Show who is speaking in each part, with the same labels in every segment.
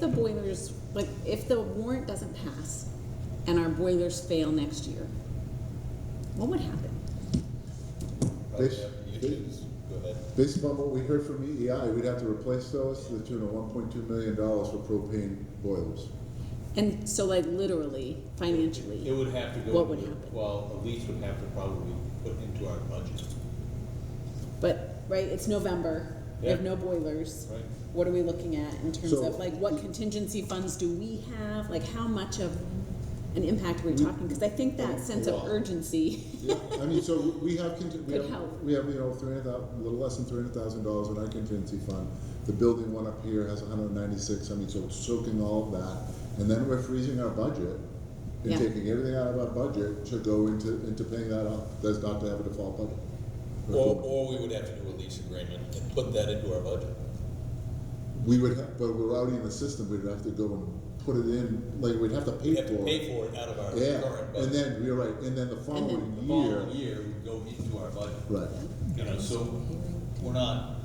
Speaker 1: the boilers, like, if the warrant doesn't pass and our boilers fail next year, what would happen?
Speaker 2: They-
Speaker 3: Probably after you choose, go ahead.
Speaker 2: Based upon what we heard from EEI, we'd have to replace those to the tune of one point two million dollars for propane boilers.
Speaker 1: And so like literally,
Speaker 3: It
Speaker 1: financially,
Speaker 3: would have to go.
Speaker 1: What would
Speaker 3: into-
Speaker 1: happen?
Speaker 3: Well, a lease would have to probably be put into our budget,
Speaker 1: but, right, it's November, we have
Speaker 3: Yeah.
Speaker 1: no boilers.
Speaker 3: right?
Speaker 1: What are we looking at in terms
Speaker 2: So-
Speaker 1: of, like, what contingency funds do we have? Like, how much of an impact are we talking? Because I think that sense of
Speaker 3: lot.
Speaker 1: urgency,
Speaker 2: Yeah, I mean, so we have, conti- we
Speaker 1: Could
Speaker 2: have,
Speaker 1: help.
Speaker 2: we have, you know, three hundred a little less than three hundred thousand dollars in our contingency fund. The building one up here has hundred and ninety-six, I mean, so it's soaking all of that, and then we're freezing our budget
Speaker 1: Yeah.
Speaker 2: and taking everything out of our budget to go into, into paying that off, that's not to have a default budget.
Speaker 3: Or, or we would have to do a lease agreement and put that into our budget.
Speaker 2: We would have, but we're already in the system, we'd have to go and put it in, like, we'd have to pay
Speaker 3: We'd
Speaker 2: for
Speaker 3: have
Speaker 2: it.
Speaker 3: to pay for it out of our
Speaker 2: Yeah,
Speaker 3: current budget.
Speaker 2: and then, you're right, and then the following
Speaker 3: The
Speaker 2: year,
Speaker 3: following year would go into our budget.
Speaker 2: right,
Speaker 3: You know, so we're not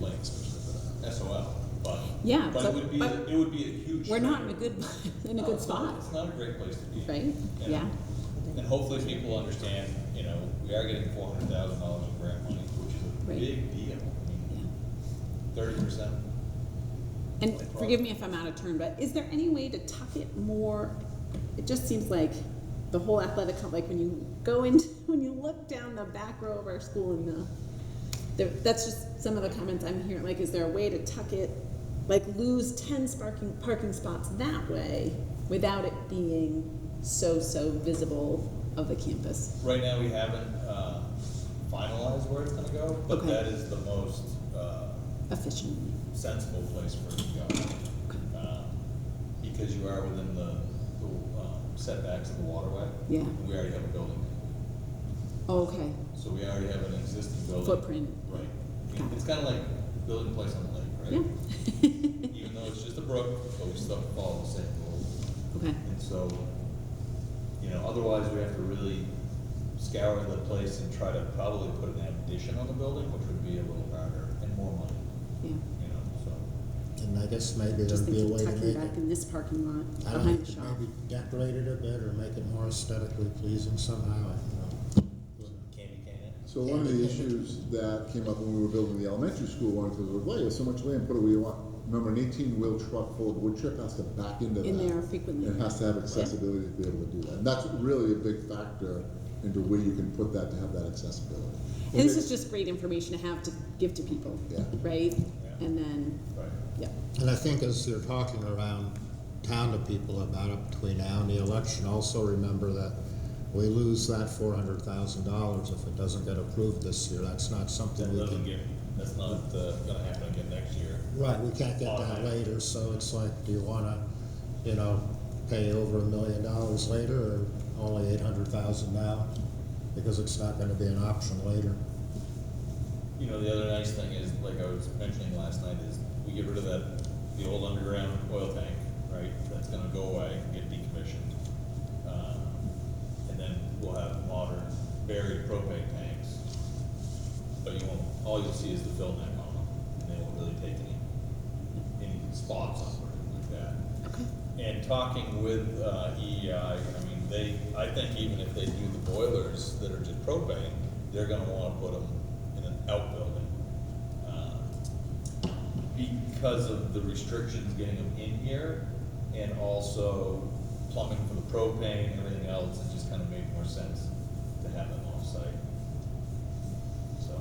Speaker 3: like SOL, but.
Speaker 1: Yeah,
Speaker 3: But
Speaker 1: but-
Speaker 3: it would be,
Speaker 1: but-
Speaker 3: it would be a huge.
Speaker 1: we're not in a good, in a
Speaker 3: No,
Speaker 1: good
Speaker 3: it's not-
Speaker 1: spot,
Speaker 3: Um, It's not a great place to be.
Speaker 1: right?
Speaker 3: you know?
Speaker 1: Yeah.
Speaker 3: And hopefully people understand, you know, we are getting four hundred thousand dollars in grant money, which is a
Speaker 1: Right.
Speaker 3: big deal.
Speaker 1: Yeah.
Speaker 3: Thirty percent.
Speaker 1: And forgive me if I'm out of turn, but is there any way to tuck it more? It just seems like the whole athletic, com- like when you go in, when you look down the back row of our school and the, there, that's just some of the comments I'm hearing. Like, is there a way to tuck it, like lose ten sparking, parking spots that way without it being so, so visible of the campus?
Speaker 3: Right now, we haven't, uh, finalized where it's gonna go, but
Speaker 1: Okay.
Speaker 3: that is the most, uh,
Speaker 1: Efficiently.
Speaker 3: sensible place for it to go. Um, Because you are within the, the um, setbacks of the waterway.
Speaker 1: Yeah. Oh,
Speaker 3: And we already have a building,
Speaker 1: Okay,
Speaker 3: so we already have an existing building.
Speaker 1: Footprint.
Speaker 3: Right. I
Speaker 1: Got
Speaker 3: mean,
Speaker 1: it.
Speaker 3: It's kinda like building a place on the lake,
Speaker 1: yeah,
Speaker 3: right? Even though it's just a brook, but we still follow the same rules.
Speaker 1: okay,
Speaker 3: And so, you know, otherwise we have to really scour the place and try to probably put an addition on the building, which would be a little harder and more money,
Speaker 1: yeah.
Speaker 3: you know, so.
Speaker 4: And I guess maybe
Speaker 1: Just
Speaker 4: there'd be a
Speaker 1: thinking
Speaker 4: way to
Speaker 1: tucking
Speaker 4: make
Speaker 1: back
Speaker 4: it,
Speaker 1: in this parking lot
Speaker 4: I don't know,
Speaker 1: behind the shop.
Speaker 4: maybe decorate it a bit or make it more aesthetically pleasing somehow, I don't know.
Speaker 3: Candy can.
Speaker 2: so one of the issues that came up when we were building the elementary school one, because we're like, there's so much land, put away, you want, remember an eighteen wheel truck full of wood chip has to back into that.
Speaker 1: In there
Speaker 2: It
Speaker 1: frequently.
Speaker 2: has to have accessibility to be able to do that, and that's really a big factor into where you can put that to have that accessibility.
Speaker 1: And this is just great information to have to give to people,
Speaker 2: Yeah.
Speaker 1: right?
Speaker 3: Yeah.
Speaker 1: And then,
Speaker 3: Right.
Speaker 1: yeah,
Speaker 4: And I think as you're talking around town to people about it between now and the election, also remember that we lose that four hundred thousand dollars if it doesn't get approved this year, that's not something
Speaker 3: That
Speaker 4: we
Speaker 3: doesn't
Speaker 4: can.
Speaker 3: get, that's not uh, gonna happen again next year.
Speaker 4: Right, we can't get that later, so it's like, do you wanna, you know, pay over a million dollars later or only eight hundred thousand now? Because it's not gonna be an option later.
Speaker 3: You know, the other nice thing is, like I was mentioning last night, is we get rid of that, the old underground oil tank, right? That's gonna go away and get decommissioned. Um, And then we'll have modern buried propane tanks. But you won't, all you'll see is the fill neck on them, and they won't really take any, any spots up or anything like that.
Speaker 1: okay,
Speaker 3: And talking with uh, EEI, I mean, they, I think even if they do the boilers that are just propane, they're gonna wanna put them in an outbuilding. uh, Because of the restrictions getting them in here, and also plumbing for the propane and everything else, it just kinda made more sense to have them off-site. So,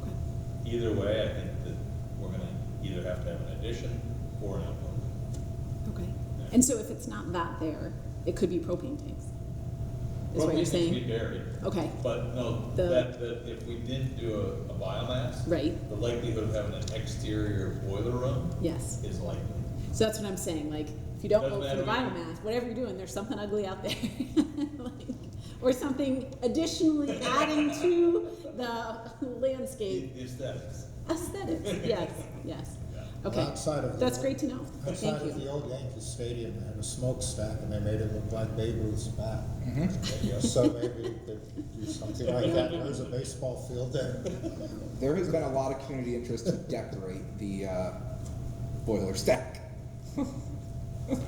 Speaker 3: either way, I think that we're gonna either have to have an addition or an outbuilding.
Speaker 1: okay. And so if it's not that there, it could be propane tanks, is what
Speaker 3: Propane
Speaker 1: you're
Speaker 3: needs to be
Speaker 1: saying?
Speaker 3: buried.
Speaker 1: Okay,
Speaker 3: But no,
Speaker 1: The-
Speaker 3: that, that if we didn't do a, a biomass,
Speaker 1: right,
Speaker 3: the likelihood of having an exterior boiler room
Speaker 1: yes.
Speaker 3: is likely.
Speaker 1: So that's what I'm saying, like, if you don't
Speaker 3: Doesn't
Speaker 1: vote for the
Speaker 3: matter.
Speaker 1: biomass, whatever you're doing, there's something ugly out there. Like, Or something additionally adding to the landscape.
Speaker 3: It- It's that.
Speaker 1: Aesthetics, yes, yes. Okay,
Speaker 4: Outside of the-
Speaker 1: that's great to know.
Speaker 4: Outside
Speaker 1: Thank
Speaker 4: of the
Speaker 1: you.
Speaker 4: old Yankee Stadium, they had a smokestack and they made it look like Babe Ruth's bat. So maybe we could do something like that, there's a baseball field there.
Speaker 5: There has been a lot of community interest to decorate the uh, boiler stack.